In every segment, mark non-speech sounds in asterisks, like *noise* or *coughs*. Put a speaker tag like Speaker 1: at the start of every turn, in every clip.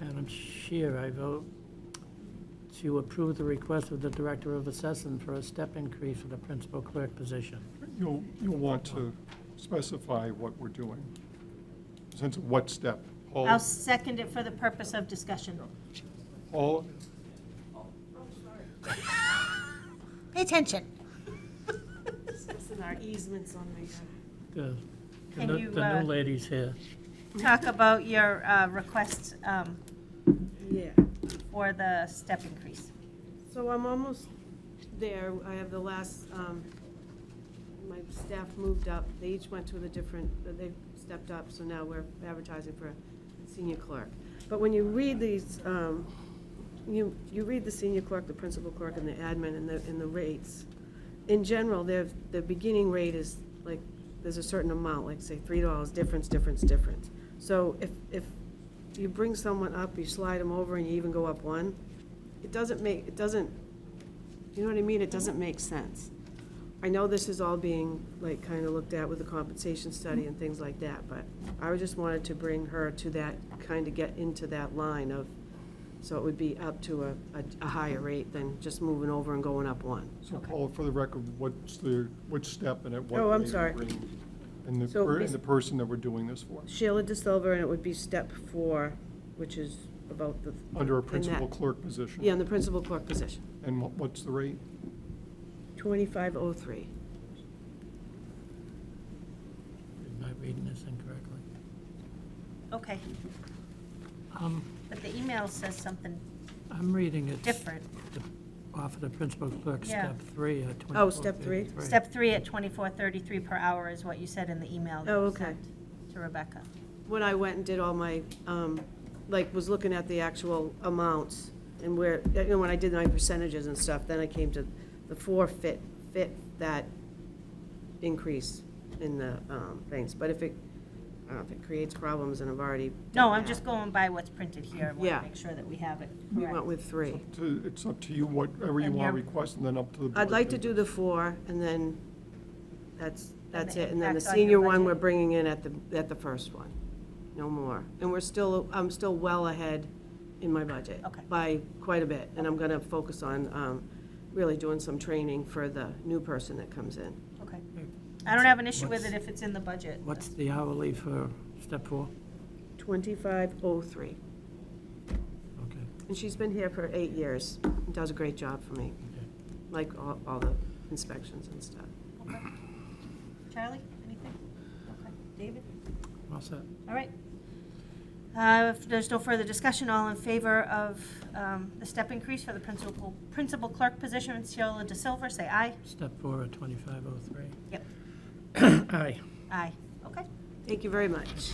Speaker 1: Madam Chair, I vote to approve the request of the Director of Assessment for a step increase for the principal clerk position.
Speaker 2: You'll, you'll want to specify what we're doing, since what step. Paul,
Speaker 3: I'll second it for the purpose of discussion.
Speaker 2: Paul,
Speaker 3: Pay attention.
Speaker 4: Discussing our easements on the,
Speaker 1: The, the
Speaker 3: Can
Speaker 1: new-
Speaker 3: you,
Speaker 1: the
Speaker 3: uh,
Speaker 1: new lady's here.
Speaker 3: Talk about your uh, requests um,
Speaker 4: yeah.
Speaker 3: for the step increase.
Speaker 4: So I'm almost there. I have the last, um, my staff moved up. They each went to the different, they stepped up, so now we're advertising for a senior clerk. But when you read these, um, you, you read the senior clerk, the principal clerk, and the admin, and the, and the rates. In general, their, the beginning rate is like, there's a certain amount, like say three dollars, difference, difference, difference. So if, if you bring someone up, you slide them over, and you even go up one, it doesn't make, it doesn't, you know what I mean? It doesn't make sense. I know this is all being, like, kind of looked at with the compensation study and things like that, but I just wanted to bring her to that, kind of get into that line of, so it would be up to a, a- a higher rate than just moving over and going up one.
Speaker 2: so Paul, for the record, what's the, which step and at what
Speaker 4: Oh, I'm
Speaker 2: rate
Speaker 4: sorry.
Speaker 2: we're in, And the,
Speaker 4: So
Speaker 2: per- and
Speaker 4: bas-
Speaker 2: the person that we're doing this for,
Speaker 4: Sheila De Silva, and it would be step four, which is about the.
Speaker 2: under a
Speaker 4: in that-
Speaker 2: principal clerk position.
Speaker 4: Yeah, in the principal clerk position,
Speaker 2: And what- what's the rate?
Speaker 4: twenty-five oh three.
Speaker 1: Am I reading this incorrectly?
Speaker 3: Okay,
Speaker 1: Um,
Speaker 3: but the email says something
Speaker 1: I'm reading it.
Speaker 3: different.
Speaker 1: Off of the principal clerk,
Speaker 3: Yeah.
Speaker 1: step three. uh, at
Speaker 4: Oh, step three?
Speaker 1: 24.33.
Speaker 3: Step three at twenty-four thirty-three per hour is what you said in the email that
Speaker 4: Oh,
Speaker 3: you
Speaker 4: okay.
Speaker 3: sent to Rebecca.
Speaker 4: when I went and did all my, um, like, was looking at the actual amounts and where, you know, when I did my percentages and stuff, then I came to the forfeit, fit that increase in the um, things. But if it, I don't know, if it creates problems and I've already
Speaker 3: No,
Speaker 4: done
Speaker 3: I'm
Speaker 4: that.
Speaker 3: just going by what's printed here. I want
Speaker 4: Yeah.
Speaker 3: to make sure that we have it
Speaker 4: We went
Speaker 3: correct.
Speaker 4: with three.
Speaker 2: To- It's up to you, whatever you
Speaker 3: And
Speaker 2: want to
Speaker 3: your-
Speaker 2: request, and then up to the board.
Speaker 4: I'd like to do the four and then that's, that's
Speaker 3: the
Speaker 4: it. And then the
Speaker 3: impact on your
Speaker 4: senior one,
Speaker 3: budget.
Speaker 4: we're bringing in at the, at the first one, no more. And we're still, I'm still well ahead in my budget.
Speaker 3: Okay.
Speaker 4: By quite a bit, and I'm gonna focus on, um, really doing some training for the new person that comes in.
Speaker 3: Okay. I don't have an issue with it if it's in the budget.
Speaker 1: What's the hourly for step four?
Speaker 4: Twenty-five oh three.
Speaker 1: Okay.
Speaker 4: And she's been here for eight years, and does a great job for me,
Speaker 1: okay.
Speaker 4: like all, all the inspections and stuff.
Speaker 3: Okay. Charlie, anything? Okay. David?
Speaker 1: All set.
Speaker 3: All right. Uh, If there's no further discussion, all in favor of um, the step increase for the principal, principal clerk position, Sheila De Silva, say aye.
Speaker 1: Step four at 2503.
Speaker 3: Yep.
Speaker 1: *coughs* Aye.
Speaker 3: Aye. Okay.
Speaker 4: Thank you very much.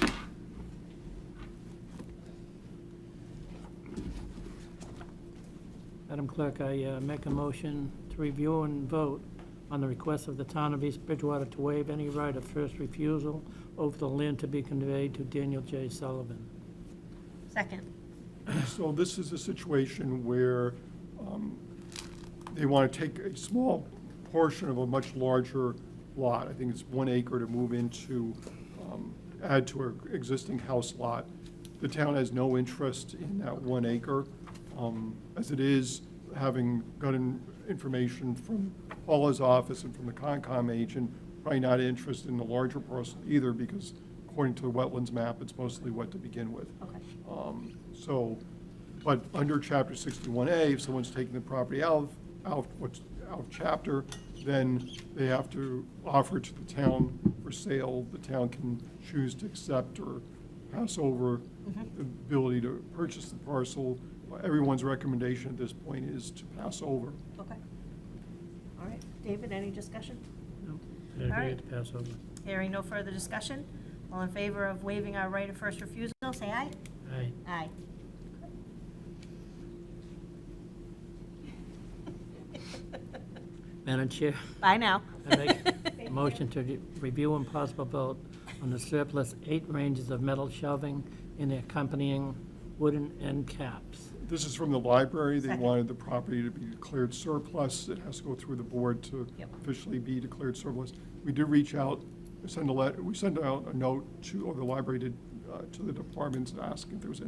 Speaker 1: Madam Clerk, I uh, make a motion to review and vote on the request of the town of East Bridgewater to waive any right of first refusal over the land to be conveyed to Daniel J. Sullivan.
Speaker 3: Second.
Speaker 2: So this is a situation where um, they want to take a small portion of a much larger lot. I think it's one acre to move into, um, add to an existing house lot. The town has no interest in that one acre. Um, As it is, having gotten information from Paula's office and from the Concom agent, probably not interested in the larger parcel either because according to the wetlands map, it's mostly wet to begin with.
Speaker 3: Okay.
Speaker 2: Um, So, but under Chapter 61A, if someone's taking the property out, of- out, what's, out of chapter, then they have to offer it to the town for sale. The town can choose to accept or pass over the ability to purchase the parcel. Everyone's recommendation at this point is to pass over.
Speaker 3: Okay. All right. David, any discussion?
Speaker 1: No,
Speaker 3: All
Speaker 1: I agree
Speaker 3: right.
Speaker 1: to pass over.
Speaker 3: Hearing no further discussion, all in favor of waiving our right of first refusal, say aye.
Speaker 1: Aye.
Speaker 3: Aye.
Speaker 1: Madam Chair,
Speaker 3: Bye now.
Speaker 1: I
Speaker 3: *laughs*
Speaker 1: make a motion to re- review and possible vote on the surplus eight ranges of metal shelving and accompanying wooden end caps.
Speaker 2: This is from the library. They
Speaker 3: Second.
Speaker 2: wanted the property to be declared surplus. It has to go through the board to
Speaker 3: Yep.
Speaker 2: officially be declared surplus. We did reach out, send a let, we sent out a note to, or the library did, uh, to the departments asking if there was